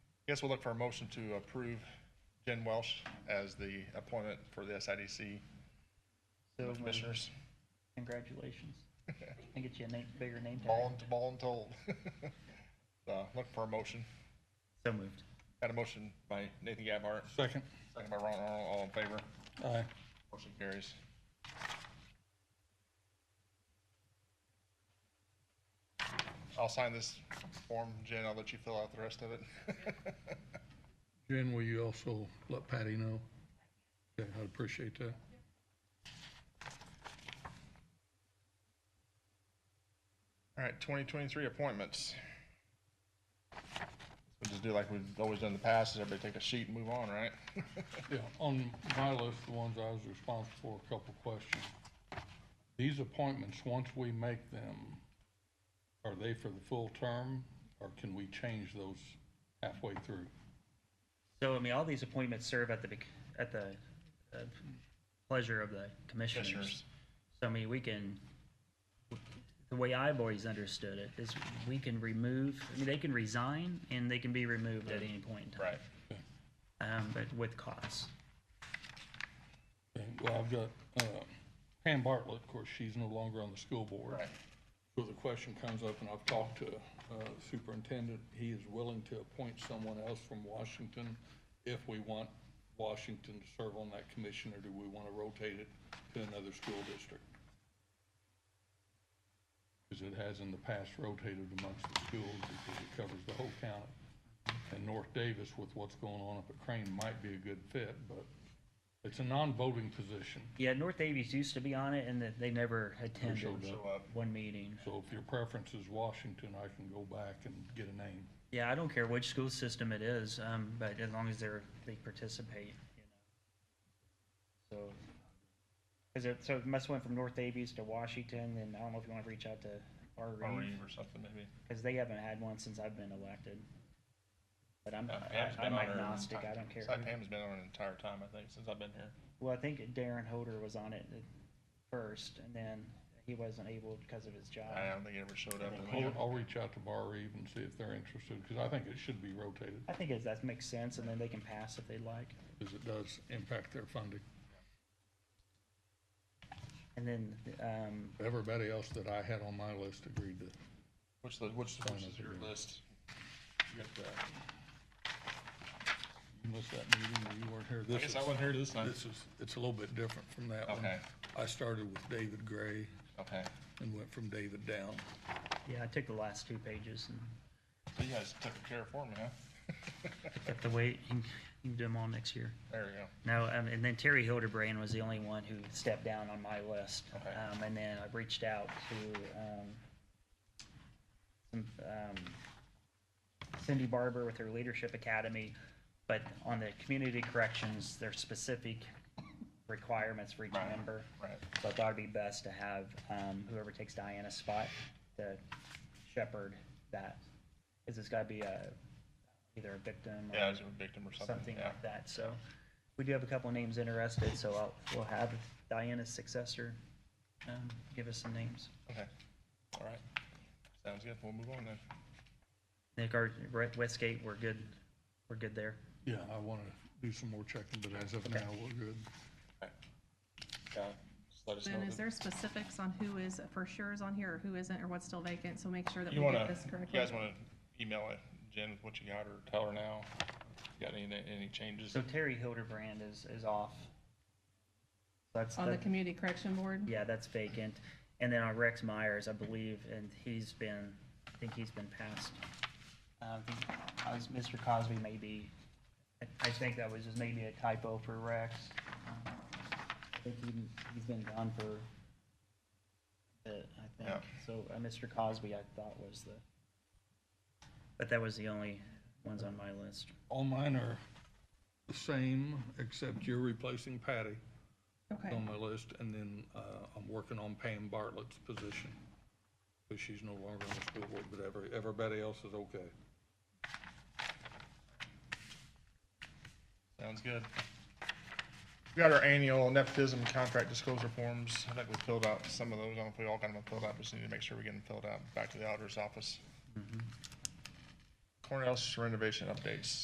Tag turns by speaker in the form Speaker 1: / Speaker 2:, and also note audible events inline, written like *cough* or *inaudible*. Speaker 1: guess we'll look for a motion to approve Jen Welsh as the appointment for the SIDC
Speaker 2: So moved.
Speaker 1: Commissioners.
Speaker 2: Congratulations. I get you a name, bigger name
Speaker 1: Ball
Speaker 2: tag.
Speaker 1: and, ball and told. *laughs* Uh, look for a motion.
Speaker 2: So moved.
Speaker 1: Got a motion by Nathan Gabhart,
Speaker 3: Second.
Speaker 1: second by Ron Arnold, all in favor.
Speaker 3: Aye.
Speaker 1: Motion carries. I'll sign this form, Jen, I'll let you fill out the rest of it. *laughs*
Speaker 3: Jen, will you also let Patty know? Okay, I'd appreciate that.
Speaker 1: All right, 2023 appointments. We'll just do like we've always done in the past, is everybody take a sheet and move on, right?
Speaker 3: Yeah, on my list, the ones I was responsible for, a couple questions. These appointments, once we make them, are they for the full term, or can we change those halfway through?
Speaker 2: So, I mean, all these appointments serve at the, bec- at the uh, pleasure of the commissioners.
Speaker 1: Commissioners.
Speaker 2: So, I mean, we can, the way I've always understood it is we can remove, I mean, they can resign and they can be removed at any point in time.
Speaker 1: *laughs* Right.
Speaker 2: Um, but with cause.
Speaker 3: Okay, Well, I've got, uh, Pam Bartlett, of course, she's no longer on the school board.
Speaker 1: Right.
Speaker 3: So the question comes up, and I've talked to uh, superintendent, he is willing to appoint someone else from Washington if we want Washington to serve on that commission, or do we want to rotate it to another school district? Because it has in the past rotated amongst the schools because it covers the whole county. And North Davis with what's going on up at Crane might be a good fit, but it's a non-voting position.
Speaker 2: Yeah, North Davies used to be on it and that they never attended
Speaker 3: showed up.
Speaker 2: one meeting.
Speaker 3: So if your preference is Washington, I can go back and get a name.
Speaker 2: Yeah, I don't care which school system it is, um, but as long as they're, they participate, you know. So, is it, so it must went from North Davies to Washington, and I don't know if you wanna reach out to R
Speaker 1: Or
Speaker 2: Reeve,
Speaker 1: or something maybe.
Speaker 2: cause they haven't had one since I've been elected. But I'm,
Speaker 1: Uh, Pam's
Speaker 2: I-
Speaker 1: been
Speaker 2: I'm
Speaker 1: on her
Speaker 2: agnostic, I
Speaker 1: entire-
Speaker 2: don't care.
Speaker 1: Site Pam's been on an entire time, I think, since I've been here.
Speaker 2: Well, I think Darren Holder was on it at first, and then he wasn't able because of his job.
Speaker 1: I don't think he ever showed up.
Speaker 3: I'll, I'll reach out to Bar Reeve and see if they're interested, because I think it should be rotated,
Speaker 2: I think it, that makes sense, and then they can pass if they'd like.
Speaker 3: because it does impact their funding.
Speaker 2: And then, um,
Speaker 3: Everybody else that I had on my list agreed to,
Speaker 1: Which, the- which, which is your
Speaker 3: Finance.
Speaker 1: list? You got the-
Speaker 3: you missed that meeting, or you weren't here.
Speaker 1: I
Speaker 3: This
Speaker 1: guess
Speaker 3: is-
Speaker 1: I wasn't here this time.
Speaker 3: This is, it's a little bit different from that one.
Speaker 1: Okay.
Speaker 3: I started with David Gray
Speaker 1: Okay.
Speaker 3: and went from David down.
Speaker 2: yeah, I took the last two pages and
Speaker 1: So you guys took care for me, huh? *laughs*
Speaker 2: Got the weight. You can- you can do them all next year.
Speaker 1: There we go.
Speaker 2: No, um, and then Terry Hildebrand was the only one who stepped down on my list.
Speaker 1: Okay.
Speaker 2: Um, and then I reached out to um, some, um, Cindy Barber with her Leadership Academy, but on the community corrections, there's specific requirements for each
Speaker 1: Right.
Speaker 2: member.
Speaker 1: Right.
Speaker 2: So I thought it'd be best to have um, whoever takes Diana's spot to shepherd that. Because it's got to be a, either a victim or
Speaker 1: Yeah, I was a victim or something,
Speaker 2: something
Speaker 1: yeah.
Speaker 2: like that. So we do have a couple names interested, so I'll, we'll have Diana's successor um, give us some names.
Speaker 1: Okay. All right. Sounds good. We'll move on then.
Speaker 2: I think our we're at Westgate, we're good, we're good there.
Speaker 3: Yeah, I want to do some more checking, but as of now, we're good.
Speaker 1: Okay. Yeah, just let us know.
Speaker 4: And is
Speaker 1: that-
Speaker 4: there specifics on who is for sure is on here, or who isn't, or what's still vacant, so make sure that we
Speaker 1: You
Speaker 4: get
Speaker 1: wanna,
Speaker 4: this
Speaker 1: you
Speaker 4: correctly?
Speaker 1: guys wanna email it, Jen, with what you got or tell her now? You Got any, any changes?
Speaker 2: So Terry Hildebrand is, is off. That's,
Speaker 4: On the
Speaker 2: that-
Speaker 4: community correction board?
Speaker 2: yeah, that's vacant. And then on Rex Myers, I believe, and he's been, I think he's been passed. Uh, I think I was- Mr. Cosby maybe, I think that was just maybe a typo for Rex. Um, I think he- he's been gone for a bit, I think.
Speaker 1: Yeah.
Speaker 2: So uh, Mr. Cosby, I thought was the, but that was the only ones on my list.
Speaker 3: All mine are the same, except you're replacing Patty.
Speaker 4: Okay,
Speaker 3: on my list, and then uh, I'm working on Pam Bartlett's position, because she's no longer on the school board, but every, everybody else is okay.
Speaker 1: Sounds good. We got our annual nepotism contract disclosure forms. I think we filled out some of those. I don't know if we all got them filled out, but just need to make sure we get them filled out back to the auditor's office. Cornell renovation updates.